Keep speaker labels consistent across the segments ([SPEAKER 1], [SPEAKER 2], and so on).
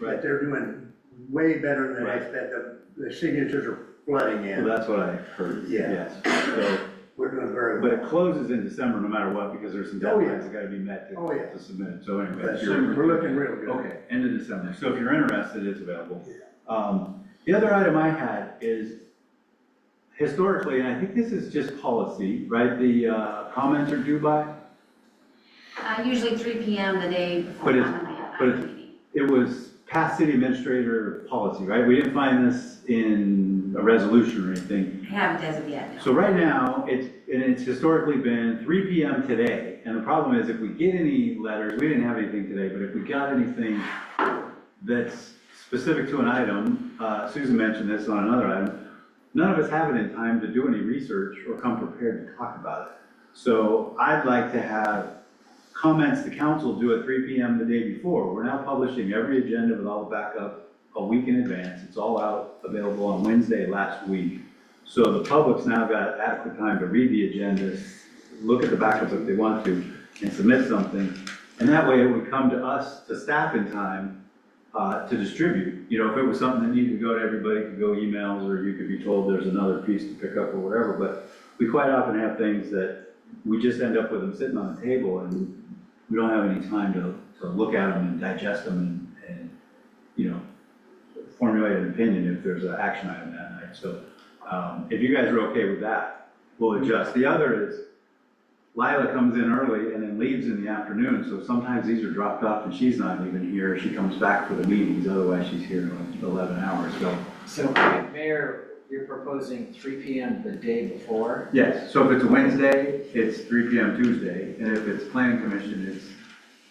[SPEAKER 1] that they're doing way better than
[SPEAKER 2] Right.
[SPEAKER 1] that, that the, the signatures are flooding
[SPEAKER 2] Well,
[SPEAKER 1] in.
[SPEAKER 2] that's what I heard,
[SPEAKER 1] Yeah.
[SPEAKER 2] yes. So,
[SPEAKER 1] We're doing very
[SPEAKER 2] but
[SPEAKER 1] well.
[SPEAKER 2] it closes in December no matter what, because there's some
[SPEAKER 1] Oh, yeah.
[SPEAKER 2] deadlines that gotta be met to
[SPEAKER 1] Oh, yeah.
[SPEAKER 2] to submit it, so anyway.
[SPEAKER 1] But
[SPEAKER 2] if you're-
[SPEAKER 1] soon, we're looking real good.
[SPEAKER 2] Okay, end of December, so if you're interested, it's available. Um, The other item I had is historically, and I think this is just policy, right? The uh, comments are due by,
[SPEAKER 3] Uh, usually three P M the day before
[SPEAKER 2] But it's-
[SPEAKER 3] I'm at
[SPEAKER 2] but
[SPEAKER 3] the
[SPEAKER 2] it's-
[SPEAKER 3] meeting.
[SPEAKER 2] it was past city administrator policy, right? We didn't find this in a resolution or anything.
[SPEAKER 3] I haven't as of yet, no.
[SPEAKER 2] So right now, it's, and it's historically been three PM today, and the problem is if we get any letters, we didn't have anything today, but if we got anything that's specific to an item, uh, Susan mentioned this on another item, none of us have it in time to do any research or come prepared to talk about it. So I'd like to have comments to council due at three PM the day before. We're now publishing every agenda with all the backup a week in advance. It's all out, available on Wednesday last week. So the public's now got adequate time to read the agendas, look at the backup if they want to, and submit something. And that way it would come to us, to staff in time, uh, to distribute. You know, if it was something that needed to go to everybody, it could go emails, or you could be told there's another piece to pick up or whatever. But we quite often have things that we just end up with them sitting on the table and we don't have any time to, to look at them and digest them and, and, you know, formulate an opinion if there's an action item that night. So um, If you guys are okay with that, we'll adjust. The other is Lila comes in early and then leaves in the afternoon, so sometimes these are dropped off and she's not even here. She comes back for the meetings, otherwise she's here in eleven hours, so.
[SPEAKER 4] So, Mayor, you're proposing three P M the day before?
[SPEAKER 2] Yes, so if it's Wednesday, it's three P M Tuesday, and if it's planning commission, it's.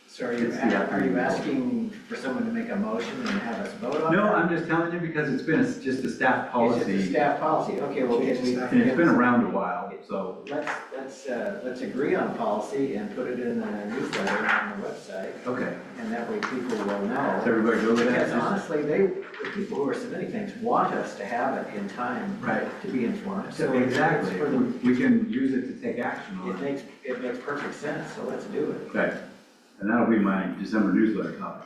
[SPEAKER 4] So are you,
[SPEAKER 2] It's the
[SPEAKER 4] a- are
[SPEAKER 2] afternoon.
[SPEAKER 4] you asking for someone to make a motion and have us vote on it?
[SPEAKER 2] No, I'm just telling you because it's been it's just a staff
[SPEAKER 4] It's just a
[SPEAKER 2] policy,
[SPEAKER 4] staff policy, okay, well, can we?
[SPEAKER 2] and it's been around a while, so.
[SPEAKER 4] Let's, let's, uh, let's agree on policy and put it in the newsletter on the website,
[SPEAKER 2] Okay,
[SPEAKER 4] and that way people will
[SPEAKER 2] does
[SPEAKER 4] know.
[SPEAKER 2] everybody go with
[SPEAKER 4] Because
[SPEAKER 2] that?
[SPEAKER 4] honestly, they, the people who are submitting things want us to have it in time
[SPEAKER 2] Right,
[SPEAKER 4] to be informed. So
[SPEAKER 2] so
[SPEAKER 4] it's- it's
[SPEAKER 2] exactly,
[SPEAKER 4] for the-
[SPEAKER 2] we can use it to take action on it.
[SPEAKER 4] It makes, it makes perfect sense, so let's do it.
[SPEAKER 2] Okay, and that'll be my December newsletter topic.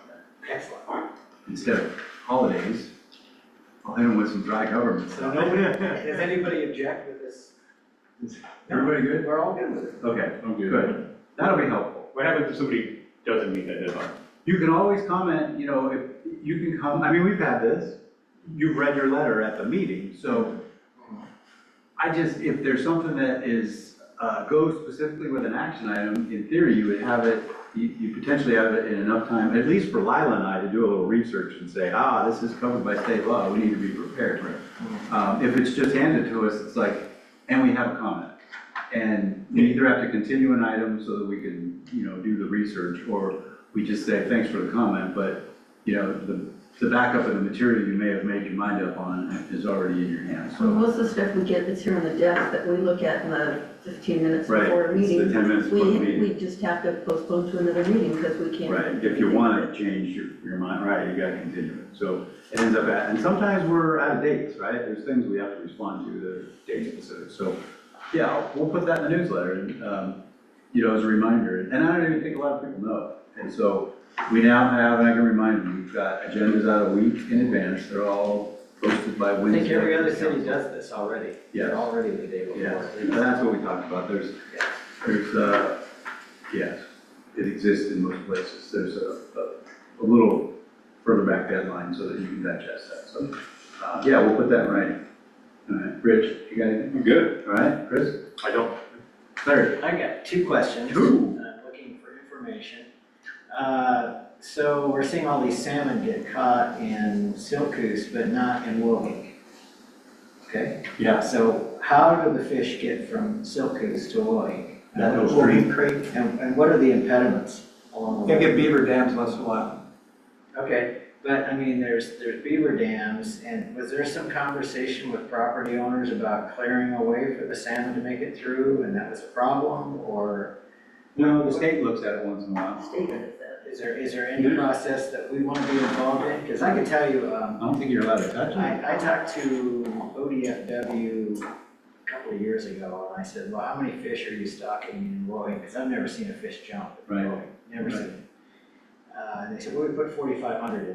[SPEAKER 4] Excellent.
[SPEAKER 2] Instead of holidays, I'll hit them with some dry government
[SPEAKER 4] So
[SPEAKER 2] stuff.
[SPEAKER 4] nobody, does anybody object with this?
[SPEAKER 2] Everybody good?
[SPEAKER 4] We're all good with it.
[SPEAKER 2] Okay,
[SPEAKER 5] I'm good.
[SPEAKER 2] good. That'll be helpful.
[SPEAKER 5] What happens if somebody doesn't meet that deadline?
[SPEAKER 2] You can always comment, you know, if, you can come, I mean, we've had this. You've read your letter at the meeting, so I just, if there's something that is, uh, goes specifically with an action item, in theory, you would have it, you, you potentially have it in enough time, at least for Lila and I to do a little research and say, ah, this is covered by state law, we need to be prepared. Um, if it's just handed to us, it's like, and we have a comment. And we either have to continue an item so that we can, you know, do the research, or we just say, thanks for the comment, but, you know, the, the backup of the material you may have made your mind up on is already in your hands, so.
[SPEAKER 6] Well, Most of the stuff we get that's here on the desk that we look at in the fifteen minutes
[SPEAKER 2] Right,
[SPEAKER 6] before a
[SPEAKER 2] it's the
[SPEAKER 6] meeting,
[SPEAKER 2] 10 minutes
[SPEAKER 6] we,
[SPEAKER 2] before the meeting.
[SPEAKER 6] we just have to postpone to another meeting because we can't.
[SPEAKER 2] Right, if you want to change your, your mind, right, you gotta continue it. So it ends up at, and sometimes we're out of dates, right? There's things we have to respond to that are date specific. So, yeah, we'll put that in the newsletter and, um, you know, as a reminder. And I don't even think a lot of people know. And so we now have, and I can remind you, we've got agendas out a week in advance. They're all posted by
[SPEAKER 4] I
[SPEAKER 2] Wednesday.
[SPEAKER 4] think every other city
[SPEAKER 2] Council.
[SPEAKER 4] does this already.
[SPEAKER 2] Yes.
[SPEAKER 4] They're already the day
[SPEAKER 2] Yes,
[SPEAKER 4] before.
[SPEAKER 2] and that's what we talked about, there's,
[SPEAKER 4] Yes.
[SPEAKER 2] there's, uh, yes, it exists in most places, there's a, a, a little further back deadline so that you can digest that, so, uh, yeah, we'll put that in writing. All right, Rich, you got anything?
[SPEAKER 5] I'm good.
[SPEAKER 2] All right, Chris?
[SPEAKER 5] I don't.
[SPEAKER 2] Larry?
[SPEAKER 4] I got two questions.
[SPEAKER 2] Ooh.
[SPEAKER 4] I'm looking for information. Uh, So we're seeing all these salmon get caught in Silkus, but not in Woking. Okay?
[SPEAKER 2] Yeah.
[SPEAKER 4] So how do the fish get from Silkus to Uh, Woking?
[SPEAKER 2] That goes
[SPEAKER 4] Woking Creek. And, and what are the impediments along the way?
[SPEAKER 2] beaver dams once in a while.
[SPEAKER 4] Okay, but I mean, there's, there's beaver dams, and was there some conversation with property owners about clearing a way for the salmon to make it through, and that was a problem, or?
[SPEAKER 2] No, the state looks at it once in a while.
[SPEAKER 6] State does that.
[SPEAKER 4] Is there, is there any process that we want to be involved in? Because I can tell you,
[SPEAKER 2] I
[SPEAKER 4] um,
[SPEAKER 2] don't think you're allowed to touch it.
[SPEAKER 4] I, I talked to ODFW a couple of years ago, and I said, well, how many fish are you stocking in Roy? Because I've never seen a fish jump in
[SPEAKER 2] Right.
[SPEAKER 4] Roy, never seen it. Uh, and they said, well, we put forty-five hundred in